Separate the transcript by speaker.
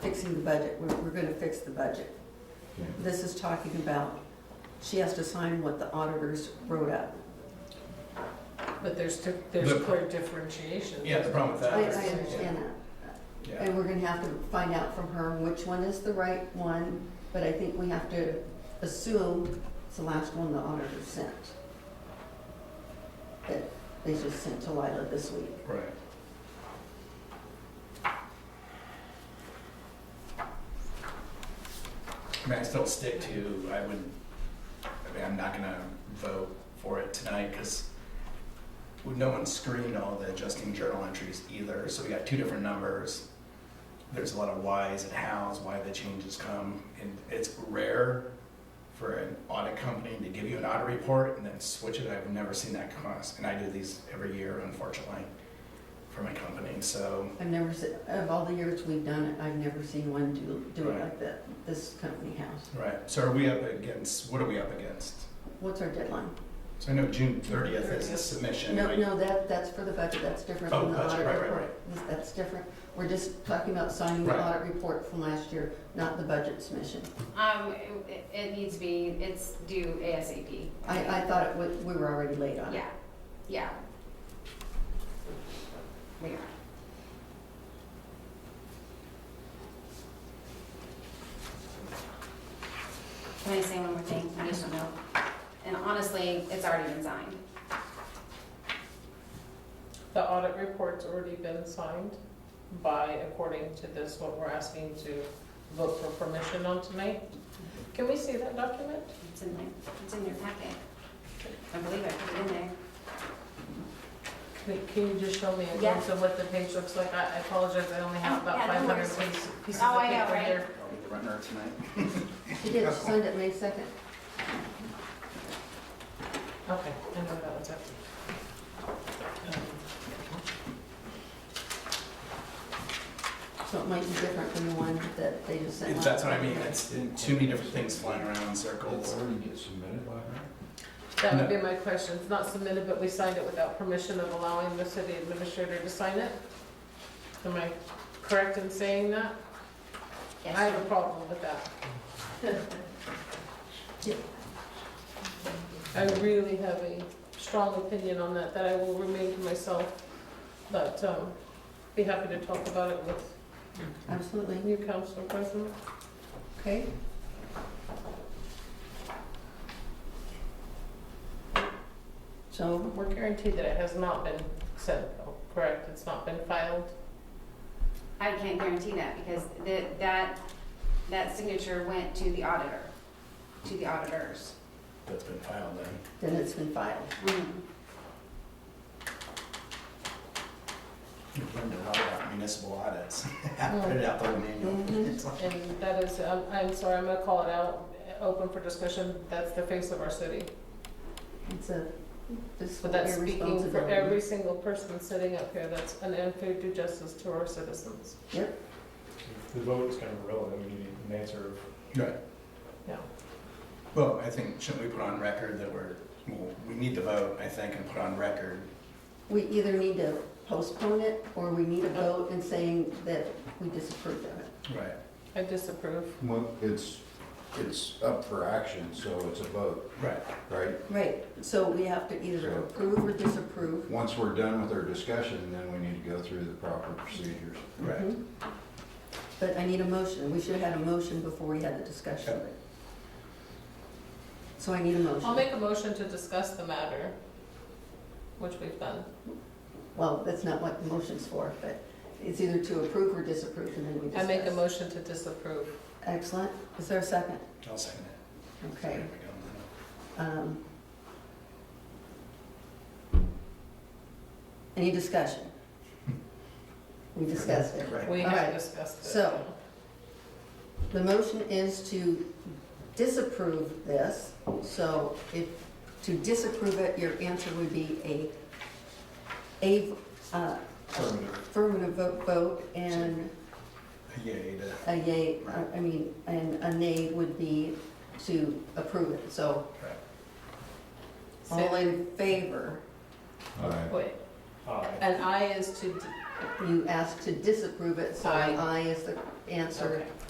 Speaker 1: fixing the budget, we're, we're gonna fix the budget.
Speaker 2: Yeah.
Speaker 1: This is talking about, she has to sign what the auditors wrote up.
Speaker 3: But there's, di- there's
Speaker 4: The-
Speaker 3: clear differentiation.
Speaker 4: Yeah, the problem with
Speaker 1: I, I
Speaker 4: that is.
Speaker 1: understand that,
Speaker 4: Yeah.
Speaker 1: and we're gonna have to find out from her which one is the right one, but I think we have to assume it's the last one the auditor sent. That they just sent to Lila this week.
Speaker 4: Right. I mean, I still stick to, I would, I mean, I'm not gonna vote for it tonight, because no one screened all the adjusting journal entries either, so we got two different numbers. There's a lot of whys and hows, why the changes come, and it's rare for an audit company to give you an audit report and then switch it. I've never seen that cost, and I do these every year, unfortunately, for my company, so,
Speaker 1: I've never, se- of all the years we've done it, I've never seen one do, do it
Speaker 4: Right.
Speaker 1: like that, this company has.
Speaker 4: right. So are we up against, what are we up against?
Speaker 1: What's our deadline?
Speaker 4: So I know June thirtieth is the submission.
Speaker 1: No,
Speaker 4: right?
Speaker 1: no, that, that's for the budget, that's different
Speaker 4: Oh,
Speaker 1: from the
Speaker 4: budget,
Speaker 1: audit
Speaker 4: right, right,
Speaker 1: report. This- That's different. We're just talking about signing the
Speaker 4: Right.
Speaker 1: audit report from last year, not the budget submission.
Speaker 5: Um, it, it needs to be, it's due ASAP.
Speaker 1: I, I thought it was, we were already late on it.
Speaker 5: Yeah, yeah. We are. Can I say one more thing, conditional note? And honestly, it's already been signed.
Speaker 3: The audit report's already been signed by, according to this, what we're asking to vote for permission on tonight. Can we see that document?
Speaker 5: It's in there, it's in your packet. I believe I put it in there.
Speaker 3: Can- Can you just show me in
Speaker 5: Yeah.
Speaker 3: terms of what the page looks like? I I apologize, I only have
Speaker 5: Oh,
Speaker 3: about
Speaker 5: yeah, no
Speaker 3: 500
Speaker 5: worries.
Speaker 3: pieces pieces of paper here.
Speaker 5: Oh, I know, right?
Speaker 4: Are we the runner tonight?
Speaker 1: She did, she signed it May second.
Speaker 3: Okay, I know that one's empty. Um,
Speaker 1: So it might be different from the one that they just sent.
Speaker 4: If
Speaker 1: last
Speaker 4: that's what I
Speaker 1: time.
Speaker 4: mean, it's too many different things flying around in circles.
Speaker 2: get submitted by her?
Speaker 3: That would be my question. It's not submitted, but we signed it without permission of allowing the city administrator to sign it? Am I correct in saying that? I
Speaker 5: Yes.
Speaker 3: have a problem with that. I really have a strong opinion on that, that I will remain to myself, but um, be happy to talk about it with
Speaker 1: Absolutely.
Speaker 3: new council president.
Speaker 1: Okay. So,
Speaker 3: We're guaranteed that it has not been sent, though, correct? It's not been filed?
Speaker 5: I can't guarantee that because that, that, that signature went to the auditor, to the auditors.
Speaker 4: That's been filed then.
Speaker 1: then it's been filed.
Speaker 4: You've learned a lot about municipal audits. Put it out the whole manual.
Speaker 1: Mhm.
Speaker 4: It's like-
Speaker 3: And that is, I'm, I'm sorry, I'm gonna call it out, open for discussion, that's the face of our city.
Speaker 1: It's a, this
Speaker 3: But
Speaker 1: will
Speaker 3: that's
Speaker 1: be
Speaker 3: speaking for
Speaker 1: responsibility.
Speaker 3: every single person sitting up here, that's an unfair due justice to our citizens.
Speaker 6: The vote is kind of irrelevant, we need an answer of
Speaker 4: Right.
Speaker 3: Yeah.
Speaker 4: Well, I think, shouldn't we put on record that we're, well, we need to vote, I think, and put on record
Speaker 1: We either need to postpone it, or we need a vote in saying that we disapprove of it.
Speaker 4: Right.
Speaker 3: I disapprove.
Speaker 2: Well, it's, it's up for action, so it's a vote,
Speaker 4: Right.
Speaker 2: right?
Speaker 1: Right, so we have to either
Speaker 2: Sure.
Speaker 1: approve or disapprove.
Speaker 2: Once we're done with our discussion, then we need to go through the proper procedures.
Speaker 4: Right.
Speaker 1: Mhm. But I need a motion, we should have had a motion before we had the discussion.
Speaker 4: Okay.
Speaker 1: So I need a
Speaker 3: I'll
Speaker 1: motion.
Speaker 3: make a motion to discuss the matter, which we've done.
Speaker 1: Well, that's not what the motion's for, but it's either to approve or disapprove, and then we
Speaker 3: I
Speaker 1: discuss.
Speaker 3: make a motion to disapprove.
Speaker 1: Excellent, is there a second?
Speaker 4: I'll second it.
Speaker 1: Okay.
Speaker 4: There we go.
Speaker 1: um, Any discussion? We discussed it.
Speaker 4: Right.
Speaker 3: We
Speaker 1: Alright,
Speaker 3: have discussed it.
Speaker 1: so- The motion is to disapprove this, so if, to disapprove it, your answer would be a, a uh,
Speaker 6: affirmative.
Speaker 1: affirmative vote- vote and
Speaker 4: Yay to.
Speaker 1: a yay, I- I mean, and a nay would be to approve it. So
Speaker 4: Right.
Speaker 3: Say-
Speaker 1: all in favor,
Speaker 2: All right.
Speaker 3: Wait,
Speaker 6: Aye.
Speaker 3: and I is to d-
Speaker 1: You asked to disapprove it, so
Speaker 3: Aye.
Speaker 1: aye is the answer.
Speaker 3: Okay.